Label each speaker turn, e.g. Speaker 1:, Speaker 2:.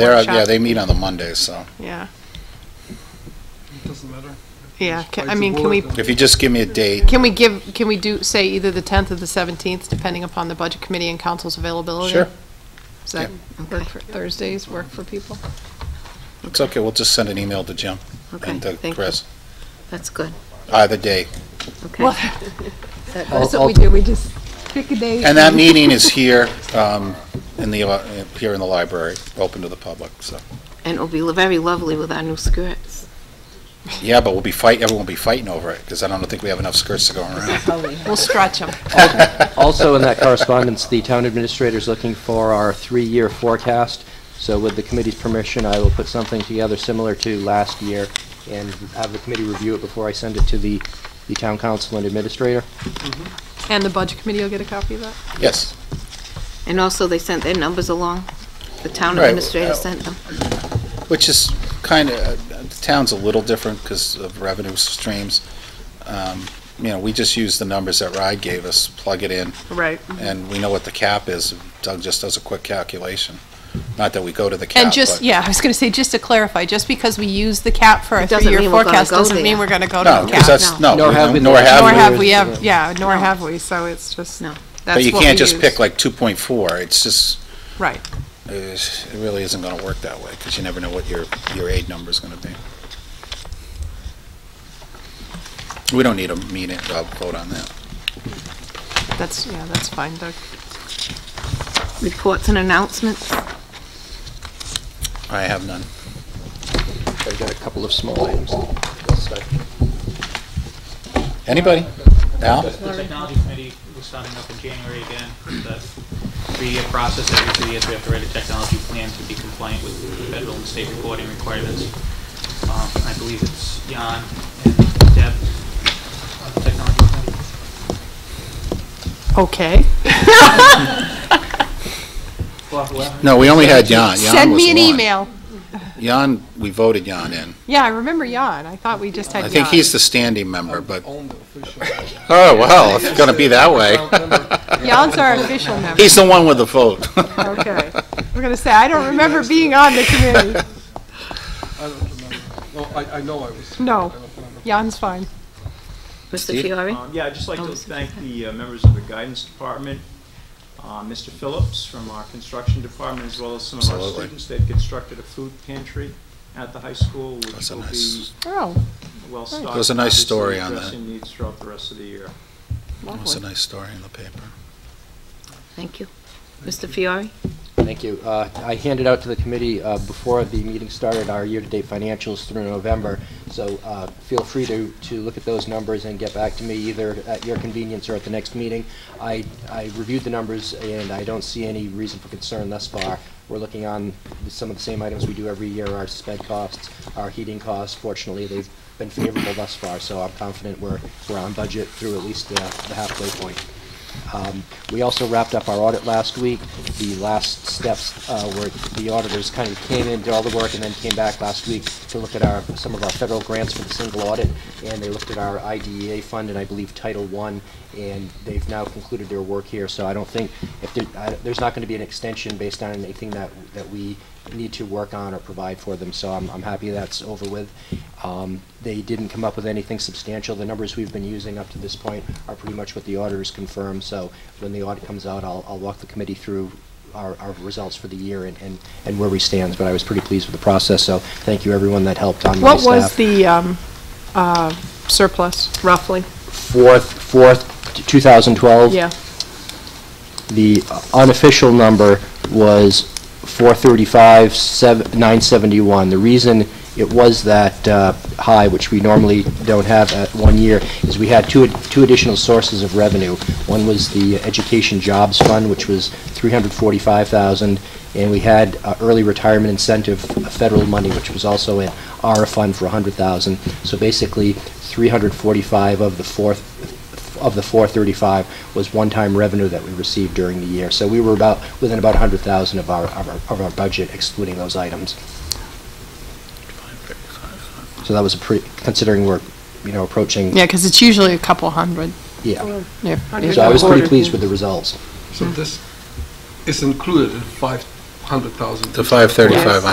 Speaker 1: They're, uh, yeah,
Speaker 2: workshop.
Speaker 1: they meet on the Mondays, so
Speaker 2: Yeah,
Speaker 3: It doesn't matter.
Speaker 2: yeah.
Speaker 3: Just
Speaker 2: Can- I
Speaker 3: like the
Speaker 2: mean, can
Speaker 3: board
Speaker 2: we,
Speaker 3: and-
Speaker 1: if you just give me a date,
Speaker 2: can we give, can we do, say either the 10th or the 17th, depending upon the budget committee and council's availability?
Speaker 1: sure.
Speaker 2: Does that work for, Thursdays work for people?
Speaker 1: It's okay, we'll just send an email to Jim
Speaker 4: Okay,
Speaker 1: and to
Speaker 4: thank you.
Speaker 1: Chris.
Speaker 4: That's good,
Speaker 1: Either day.
Speaker 4: okay.
Speaker 2: Well,
Speaker 4: That-
Speaker 2: that's what we do, we just pick a day.
Speaker 1: And that meeting is here, um, in the, uh, here in the library, open to the public, so.
Speaker 4: And it'll be very lovely with our new skirts.
Speaker 1: Yeah, but we'll be fight, everyone will be fighting over it, because I don't think we have enough skirts to go around.
Speaker 2: We'll stretch them.
Speaker 5: Also, in that correspondence, the town administrator is looking for our three-year forecast. So with the committee's permission, I will put something together similar to last year and have the committee review it before I send it to the, the town council and administrator.
Speaker 2: And the budget committee will get a copy of that?
Speaker 1: Yes,
Speaker 4: And also, they sent their numbers along. The town
Speaker 1: Right.
Speaker 4: administrator sent them.
Speaker 1: which is kind of, the town's a little different because of revenue streams. Um, You know, we just use the numbers that RIDE gave us, plug it in,
Speaker 2: Right.
Speaker 1: and we know what the cap is. Doug just does a quick calculation. Not that we go to the cap,
Speaker 2: And just,
Speaker 1: but-
Speaker 2: yeah, I was going to say, just to clarify, just because we use the cap for our
Speaker 4: It doesn't
Speaker 2: three-year
Speaker 4: mean we're gonna
Speaker 2: forecast,
Speaker 4: go
Speaker 2: doesn't
Speaker 4: there.
Speaker 2: mean we're going to go
Speaker 1: No,
Speaker 2: to the
Speaker 1: because
Speaker 2: cap.
Speaker 1: that's, no,
Speaker 5: Nor have we-
Speaker 1: nor
Speaker 2: Nor
Speaker 1: have
Speaker 2: have
Speaker 1: we.
Speaker 2: we ever, yeah, nor have we, so it's just,
Speaker 4: No.
Speaker 1: But
Speaker 2: that's
Speaker 1: you
Speaker 2: what
Speaker 1: can't
Speaker 2: we
Speaker 1: just
Speaker 2: use.
Speaker 1: pick like 2.4. It's just,
Speaker 2: Right.
Speaker 1: it's- it really isn't going to work that way because you never know what your, your aid number's going to be. We don't need a meeting, uh, vote on that.
Speaker 2: That's, yeah, that's fine, Doug.
Speaker 4: Reports and announcements.
Speaker 1: I have none.
Speaker 5: I've got a couple of small items. Let's start.
Speaker 1: Anybody? Al?
Speaker 6: The technology committee was starting up in January again, the three-year process, every three years we have to write a technology plan to be compliant with federal and state reporting requirements. Um, I believe it's Jan and Deb, on the technology committee.
Speaker 2: Okay.
Speaker 6: Well, whoever-
Speaker 1: No, we only had Jan. Jan
Speaker 2: Send
Speaker 1: was
Speaker 2: me an
Speaker 1: one.
Speaker 2: email.
Speaker 1: Jan, we voted Jan in.
Speaker 2: Yeah, I remember Jan. I thought we just had
Speaker 1: I
Speaker 2: Jan.
Speaker 1: think he's the standing member, but,
Speaker 3: Own the official.
Speaker 1: oh, well, if it's going to be that way.
Speaker 2: Jan's our official member.
Speaker 1: He's the one with the vote.
Speaker 2: Okay. We're going to say, I don't remember being on the committee.
Speaker 3: I don't remember. No, I, I know I was.
Speaker 2: No.
Speaker 3: I don't remember.
Speaker 2: Jan's fine.
Speaker 4: Mr.
Speaker 1: Steve?
Speaker 4: Fiore?
Speaker 7: Um, Yeah, I'd just like
Speaker 4: Oh,
Speaker 7: to
Speaker 4: Mr.
Speaker 7: thank the uh, members of the guidance department, uh, Mr. Phillips from our construction department, as well as some of our
Speaker 1: Absolutely.
Speaker 7: students. They've constructed a food pantry at the high school, which
Speaker 1: That's a
Speaker 7: will be
Speaker 1: nice-
Speaker 2: Oh,
Speaker 7: well stocked.
Speaker 1: There's a nice
Speaker 7: obviously,
Speaker 1: story on that.
Speaker 7: Addressing needs throughout the rest of the year.
Speaker 1: It was a
Speaker 2: lovely.
Speaker 1: nice story in the paper.
Speaker 4: Thank you. Mr. Fiore?
Speaker 5: Thank you. Uh, I handed out to the committee uh, before the meeting started our year-to-date financials through November, so uh, feel free to, to look at those numbers and get back to me either at your convenience or at the next meeting. I, I reviewed the numbers, and I don't see any reason for concern thus far. We're looking on some of the same items we do every year, our sped costs, our heating costs. Fortunately, they've been favorable thus far, so I'm confident we're, we're on budget through at least the the halfway point. Um, We also wrapped up our audit last week. The last steps uh, were the auditors kind of came in, did all the work, and then came back last week to look at our, some of our federal grants for the single audit, and they looked at our IDEA fund and I believe Title I, and they've now concluded their work here, so I don't think, if there, I- there's not going to be an extension based on anything that, that we need to work on or provide for them, so I'm, I'm happy that's over with. Um, They didn't come up with anything substantial. The numbers we've been using up to this point are pretty much what the auditors confirm, so when the audit comes out, I'll, I'll walk the committee through our, our results for the year and, and, and where we stand, but I was pretty pleased with the process, so thank you everyone that helped on my
Speaker 2: What
Speaker 5: staff.
Speaker 2: was the um, uh, surplus, roughly?
Speaker 5: Fourth, fourth,
Speaker 1: Oh.
Speaker 5: 2012?
Speaker 2: Yeah.
Speaker 5: The unofficial number was 435, sev- 971. The reason it was that uh, high, which we normally don't have at one year, is we had two two additional sources of revenue. One was the Education Jobs Fund, which was 345,000, and we had uh, early retirement incentive uh, federal money, which was also an ARA fund for 100,000. So basically, 345 of the fourth of the 435 was one-time revenue that we received during the year. So we were about, within about 100,000 of our, of our- of our budget excluding those items. So that was a pretty, considering we're, you know, approaching,
Speaker 2: Yeah, because it's usually a couple hundred.
Speaker 5: yeah.
Speaker 2: Yeah.
Speaker 5: So I was pretty pleased with the results.
Speaker 3: So this is included in five hundred thousand.
Speaker 1: The 535,